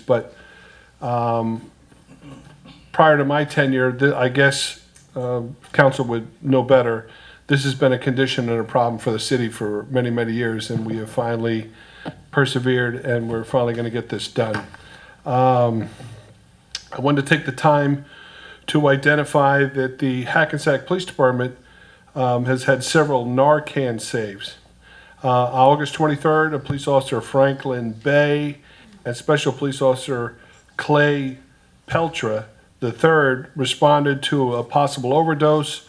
but um, prior to my tenure, th- I guess um, council would know better. This has been a condition and a problem for the city for many, many years, and we have finally persevered, and we're finally going to get this done. Um, I wanted to take the time to identify that the Hackensack Police Department um, has had several Narcan saves. Uh, August 23rd, a police officer Franklin Bay and Special Police Officer Clay Peltra III responded to a possible overdose.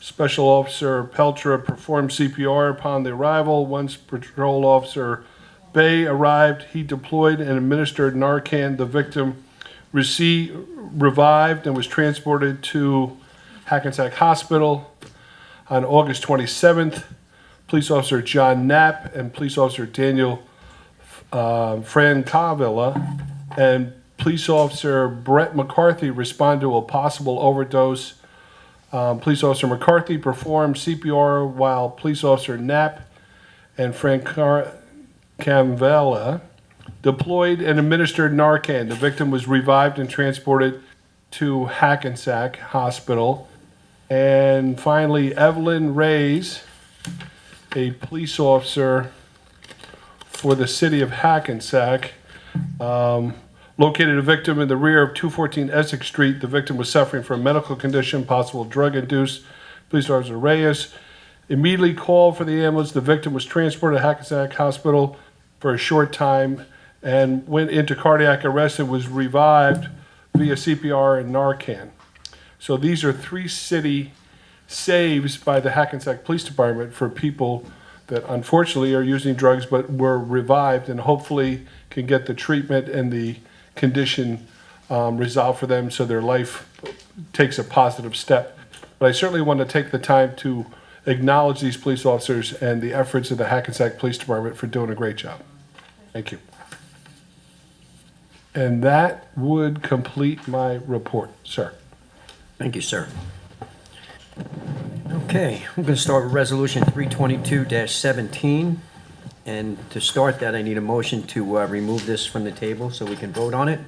Special Officer Peltra performed CPR upon the arrival. Once Patrol Officer Bay arrived, he deployed and administered Narcan. The victim received, revived and was transported to Hackensack Hospital. On August 27th, Police Officer John Knapp and Police Officer Daniel uh, Fran Cavilla and Police Officer Brett McCarthy respond to a possible overdose. Um, Police Officer McCarthy performed CPR while Police Officer Knapp and Fran Car- Cavilla deployed and administered Narcan. The victim was revived and transported to Hackensack Hospital. And finally, Evelyn Reyes, a police officer for the city of Hackensack, um, located a victim in the rear of 214 Essex Street. The victim was suffering from a medical condition, possible drug-induced. Police Officer Reyes immediately called for the ambulance. The victim was transported to Hackensack Hospital for a short time and went into cardiac arrest and was revived via CPR and Narcan. So these are three city saves by the Hackensack Police Department for people that unfortunately are using drugs but were revived and hopefully can get the treatment and the condition um, resolved for them so their life takes a positive step. But I certainly want to take the time to acknowledge these police officers and the efforts of the Hackensack Police Department for doing a great job. Thank you. And that would complete my report, sir. Thank you, sir. Okay, we're going to start with Resolution 322-17. And to start that, I need a motion to uh, remove this from the table so we can vote on it.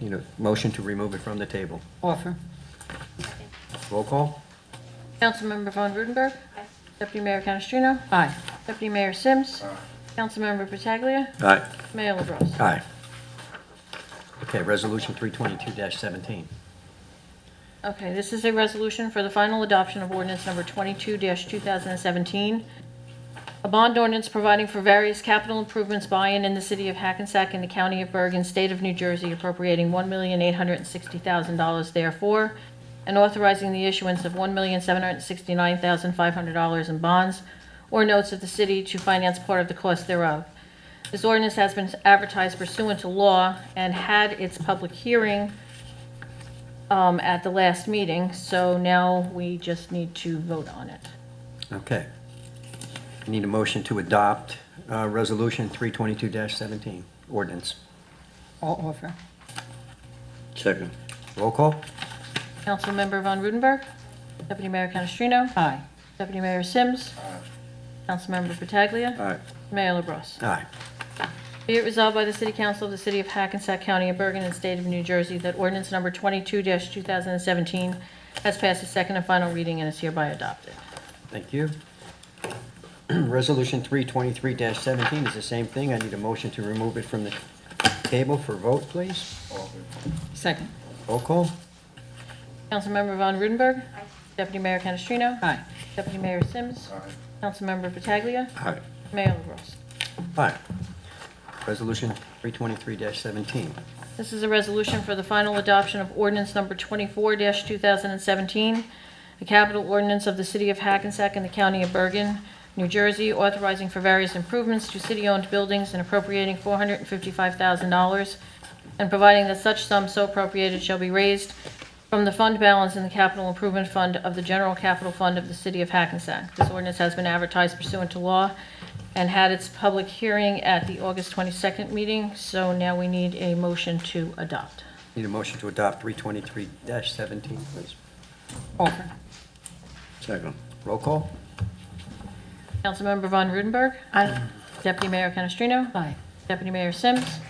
You know, motion to remove it from the table. Offer. Roll call? Councilmember Von Rudenberg. Deputy Mayor Canestrino. Aye. Deputy Mayor Sims. Councilmember Pataglia. Aye. Mayor LaBrus. Aye. Okay, Resolution 322-17. Okay, this is a resolution for the final adoption of ordinance number 22-2017, a bond ordinance providing for various capital improvements by and in the city of Hackensack and the county of Bergen, state of New Jersey appropriating $1,860,000 therefore, and authorizing the issuance of $1,769,500 in bonds or notes of the city to finance part of the cost thereof. This ordinance has been advertised pursuant to law and had its public hearing um, at the last meeting, so now we just need to vote on it. Okay. Need a motion to adopt uh, Resolution 322-17, ordinance. All offer. Second. Roll call? Councilmember Von Rudenberg, Deputy Mayor Canestrino, Aye. Deputy Mayor Sims, Councilmember Pataglia, Aye. Mayor LaBrus. Aye. Be it resolved by the City Council of the City of Hackensack County of Bergen and State of New Jersey that ordinance number 22-2017 has passed its second and final reading and is hereby adopted. Thank you. Resolution 323-17 is the same thing. I need a motion to remove it from the table for vote, please. Second. Roll call? Councilmember Von Rudenberg, Deputy Mayor Canestrino, Aye. Deputy Mayor Sims, Councilmember Pataglia, Aye. Mayor LaBrus. Aye. Resolution 323-17. This is a resolution for the final adoption of ordinance number 24-2017, a capital ordinance of the City of Hackensack and the County of Bergen, New Jersey, authorizing for various improvements to city-owned buildings and appropriating $455,000, and providing that such sum so appropriated shall be raised from the fund balance in the capital improvement fund of the general capital fund of the City of Hackensack. This ordinance has been advertised pursuant to law and had its public hearing at the August 22nd meeting, so now we need a motion to adopt. Need a motion to adopt 323-17, please. Offer. Second. Roll call? Councilmember Von Rudenberg. Aye. Deputy Mayor Canestrino. Aye. Deputy Mayor Sims.